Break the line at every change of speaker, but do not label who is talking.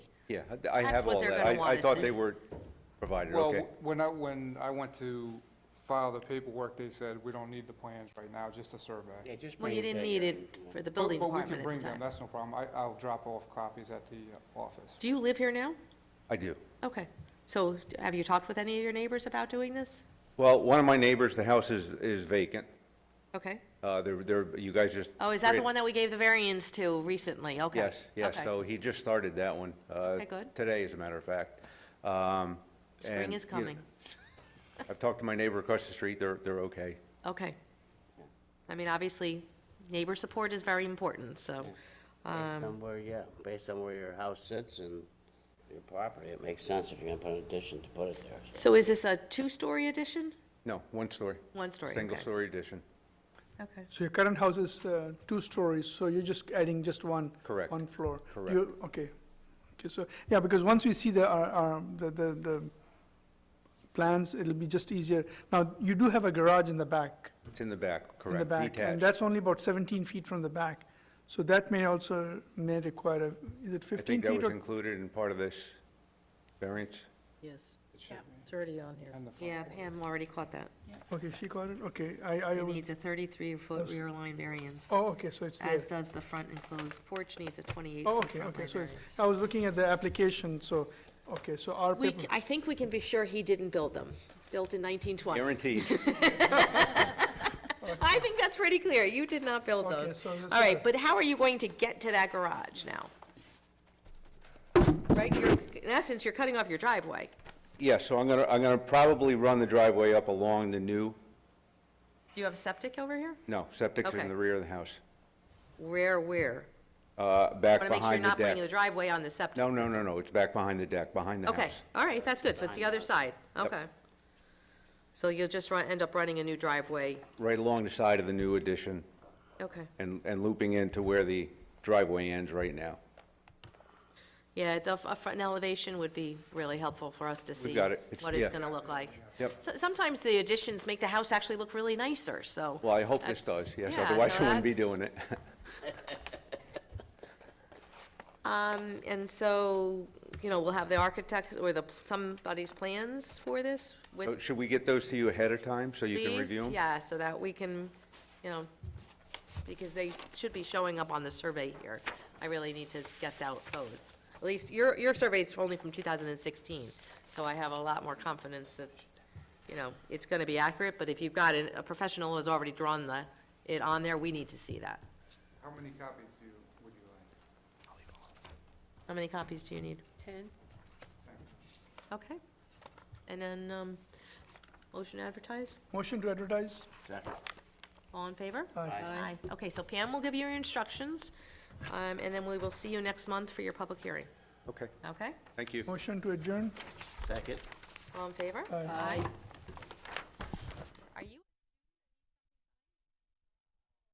Yeah, I- I have
what
all
they're
that.
gonna
I-
wanna
I thought
see.
they were provided,
Well,
okay.
when I, when I went to file the paperwork, they said, we don't need the plans right now, just a survey.
Yeah, just
Well,
bring
you
it
didn't
back.
need it for the building
But- But we
department
can
at
bring
the
them,
time.
that's no problem. I, I'll drop off copies at the uh, office.
Do you live here now?
I do.
Okay. So have you talked with any of your neighbors about doing this?
Well, one of my neighbors, the house is, is vacant.
Okay.
Uh, There, there, you guys just.
Oh, is that the
created-
one that we gave the variance to recently? Okay.
Yes, yes,
Okay.
so he just started that one. uh,
Okay, good.
Today, as a matter of fact. Um,
Spring
and,
is
you know,
coming.
I've talked to my neighbor across the street, they're, they're okay.
Okay. I mean, obviously, neighbor support is very important, so, um,
Based on where, yeah, based on where your house sits and your property, it makes sense if you're gonna put an addition to put it there. so.
so is this a two-story addition?
No, one story.
One story, okay.
Single-story addition.
Okay.
So your current house is uh, two stories, so you're just adding just one?
Correct.
One floor?
Correct.
You- Okay. Okay, so, yeah, because once we see the, our- our- the, the, the plans, it'll be just easier. Now, you do have a garage in the back.
It's in the back,
In the
correct,
back, And
detached.
that's only about 17 feet from the back. So that may also, may require, a is it
I
15
think that
feet
was
or?
included in part of this variance.
Yes,
It should be.
it's already on here.
And the front
Yeah,
door.
Pam already caught that.
Okay, she got it, okay, I, I
It
was,
needs a 33-foot rear line variance,
oh, okay, so it's there.
as does the front enclosed porch needs a
Oh,
28-foot
okay,
front line
okay, so it's,
variance.
I was looking at the application, so, okay, so our
We,
paper.
I think we can be sure he didn't build them, built in 1920.
Guaranteed.
I think that's pretty clear, you did not build
Okay,
those.
so that's
All right,
better.
but how are you going to get to that garage now? Right, you're, in essence, you're cutting off your driveway.
Yeah, so I'm gonna, I'm gonna probably run the driveway up along the new,
You have septic over here?
no, septic's
Okay.
in the rear of the house,
Where, where?
uh,
I want to make sure
back
you're
behind the
not putting the
deck.
driveway on the septic.
No, no, no, no, it's back behind the deck, behind the
Okay,
house.
all right, that's good, so it's the other side, okay. So you'll just run, end up running a new driveway,
Right along the side of the new addition
okay.
and, and looping into where the driveway ends right now.
Yeah, the f- a front elevation would be really helpful for us to see.
got it. It's-
What it's
yeah.
gonna look like.
Yep.
So- Sometimes the additions make the house actually look really nicer, so.
Well, I hope this
that's-
does, yes,
yeah,
otherwise
so
I wouldn't be
that's-
doing it.
And so, you know, we'll have the architect or the, somebody's plans for this
So
with,
Should we get those to you ahead of time so you Oh, can
please?
review them?
Yeah, so that we can, you know, because they should be showing up on the survey here. I really need to get that, those. At least, your, your survey's only from 2016, so I have a lot more confidence that, you know, it's gonna be accurate, but if you've got, it- a professional has already drawn the, it on there, we need to see that.
How many copies do you, would you like?
How many copies do you need?
Ten?
Okay. And then, um, motion to advertise,
Motion to advertise?
Second.
all in favor?
Aye.
Aye. Okay, so Pam will give you your instructions, um, and then we will see you next month for your public hearing,
Okay,
okay?
thank you.
Motion to adjourn?
Second.
All in favor?
Aye.
Aye.